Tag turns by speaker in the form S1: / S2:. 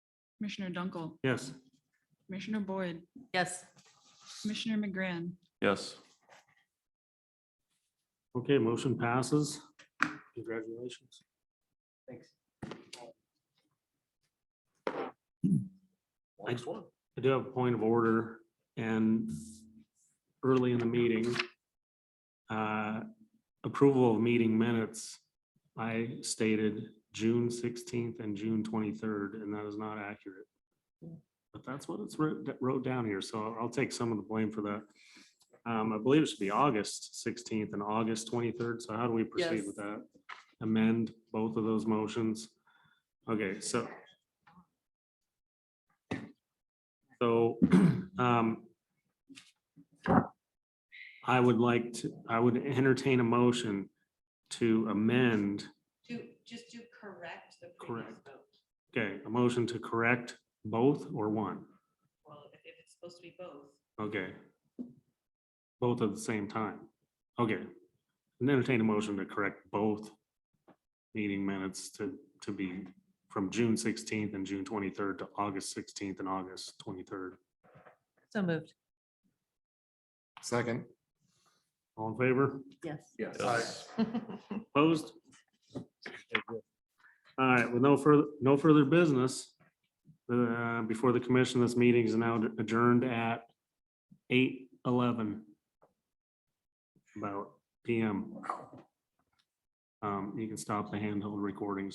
S1: Commissioner Dunkel,
S2: Yes.
S1: Commissioner Boyd,
S3: Yes.
S1: Commissioner McGrann,
S4: Yes.
S2: Okay, motion passes. Congratulations.
S5: Thanks.
S2: Next one. I do have a point of order and early in the meeting, uh, approval of meeting minutes, I stated June sixteenth and June twenty-third, and that is not accurate. But that's what it's wrote, that wrote down here, so I'll take some of the blame for that. Um, I believe it should be August sixteenth and August twenty-third, so how do we proceed
S3: Yes.
S2: with that? Amend both of those motions? Okay, so. So, um, I would like to, I would entertain a motion to amend,
S3: To, just to correct the previous
S2: Correct.
S3: vote.
S2: okay, a motion to correct both or one,
S3: Well, if if it's supposed to be both,
S2: okay? Both at the same time, okay. And entertain a motion to correct both meeting minutes to, to be from June sixteenth and June twenty-third to August sixteenth and August twenty-third.
S3: so moved.
S5: Second.
S2: All in favor?
S3: Yes.
S4: Yes.
S2: Opposed? All right, with no further, no further business, uh, before the commission, this meeting is now adjourned at eight eleven. About PM. Um, you can stop the handheld recordings.